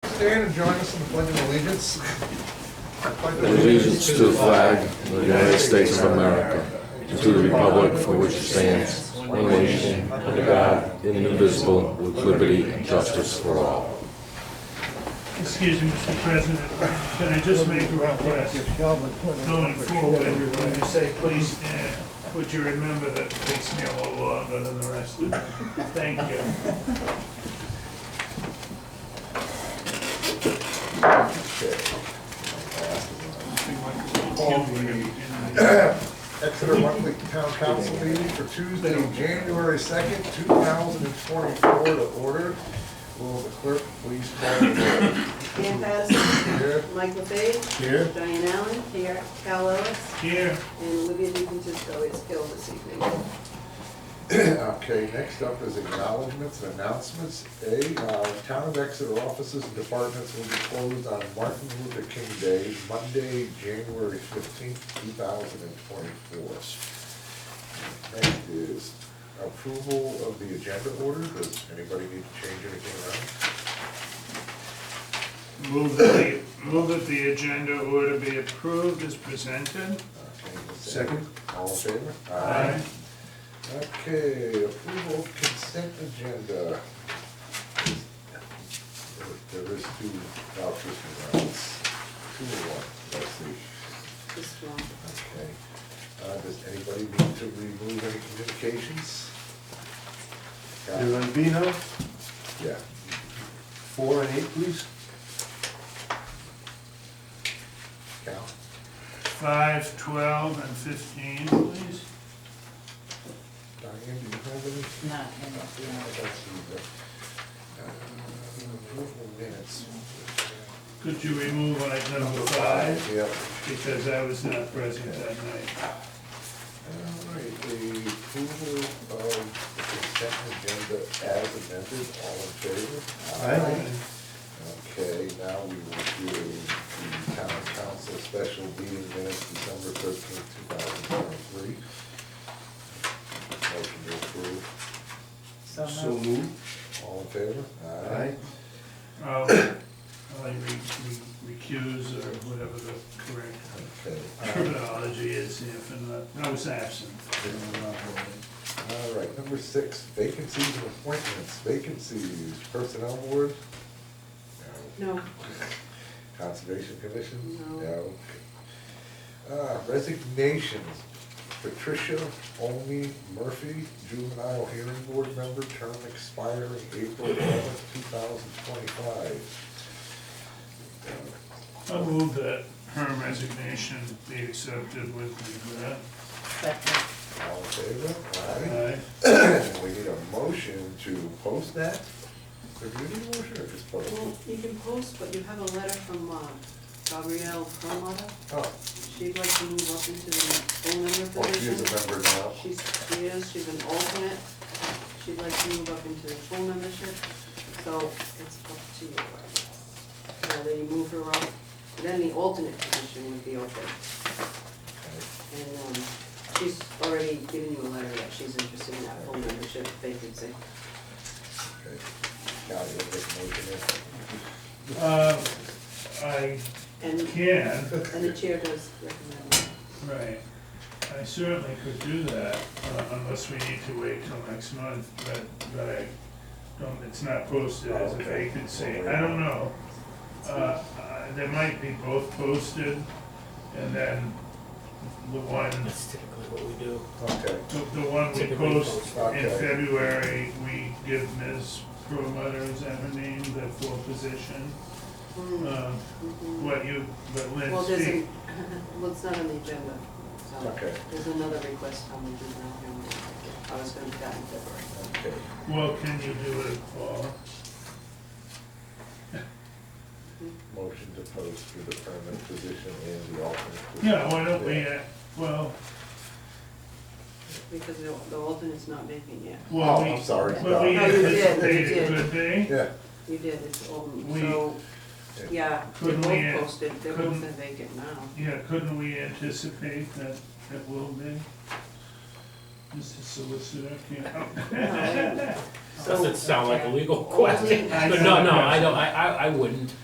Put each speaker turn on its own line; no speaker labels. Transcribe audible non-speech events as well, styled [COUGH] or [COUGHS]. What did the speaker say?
stand and join us in the pledge of allegiance?
allegiance to the flag of the United States of America, and to the republic for which it stands, one nation, under God, indivisible, with liberty and justice for all.
Excuse me, Mr. President, can I just make a request? Going forward, when you say please stand, would you remember that it takes me a little longer than the rest of you? Thank you.
All Exeter monthly town council meeting for Tuesday, January second, two thousand and twenty-four to order. Will the clerk please call the
Dan Patterson,
roll? Here,
Mike LeFave,
here.
Diane Allen. Here. Cal Ellis,
Here,
and Olivia DeFrancisco is ill this evening.
[COUGHS] Okay, next up is acknowledgements and announcements. A, uh, Town of Exeter offices and departments will be closed on Martin Luther King Day, Monday, January fifteenth, two thousand and twenty-four. Next is approval of the agenda order. Does anybody need to change anything
move that the, move that the agenda order be approved as presented.
around? Okay,
Second.
All in favor?
Aye.
Okay, approval of consent agenda. There- There is two uh, vouchers for that. Two or one, let's see.
This one.
Okay. Uh, does anybody need to remove any communications? Got it.
There will be no
Yeah.
four and eight, please.
Cal?
Five, twelve, and fifteen, please.
Diane, do you have any?
Not in the, uh,
Let's see, the, uh, approval minutes.
Could you remove item number five,
Yep.
because I was not present that night.
All right, the approval of the consent agenda as amended, all in favor?
Aye.
Okay, now we will do the town council special meeting minutes, December thirteenth, two thousand twenty-three. Motion to approve,
so
So
moved.
moved.
all in favor?
Aye.
I'll, I'll re- re- recuse, or whatever the correct
Okay,
terminology is if in the, I was absent.
all right, number six, vacancies and appointments, vacancies, personnel board? No. [LAUGHS]
No,
Conservation Commission?
No.
No. Uh, Resignations, Patricia Omi Murphy, Juvenile Hearing Board Member, term expiring April eleventh, two thousand twenty-five.
I move that her resignation be accepted with regret.
Second.
All in favor?
Aye.
Aye. We need a motion to post that? Do we need a motion or just post?
well, you can post, but you have a letter from uh, Gabrielle Perlmutter.
Oh,
She'd like to move up into the full member
well, Oh, she is a
position.
member now.
She's, she is, she's an alternate. She'd like to move up into the full membership, so it's up to you. Whether you move her up, then the alternate position would be open. And um, she's already given you a letter that she's interested in that full membership vacancy.
Okay. Now, you'll make a motion
Uh, I
And,
can,
and the chair does recommend it.
right. I certainly could do that uh, unless we need to wait till next month, but, but I don't, it's not posted as a
Okay.
vacancy. I don't know. Uh, uh, They might be both posted and then the one
That's typically what we do.
Okay.
The, the one we
Typically
post
post,
in
okay.
February, we give Ms. Perlmutter, is that her name, the full position? Uh,
Mhm.
What you, but
Well,
Lynn
there's,
speak,
a- [LAUGHS] well, it's not on the agenda, so
Okay.
there's another request coming through now. and I was gonna do that in February.
Okay.
well, can you do it for,
Motion to post for the permanent position and the alternate. position.
yeah, why don't we, uh, well,
Because the the alternate's not vacant yet.
well,
Oh,
we.
I'm sorry.
But we
No, you did, you
anticipate it
did.
could be,
Yeah,
You did, it's open,
We-
so, yeah, they're
Couldn't we, uh,
both posted, they're both
couldn't-
in vacant now.
yeah, couldn't we anticipate that it will be? Mr. Solicitor, can
No, I- So-
[LAUGHS] Doesn't sound like a legal question, but no, no, I don't, I, I, I wouldn't.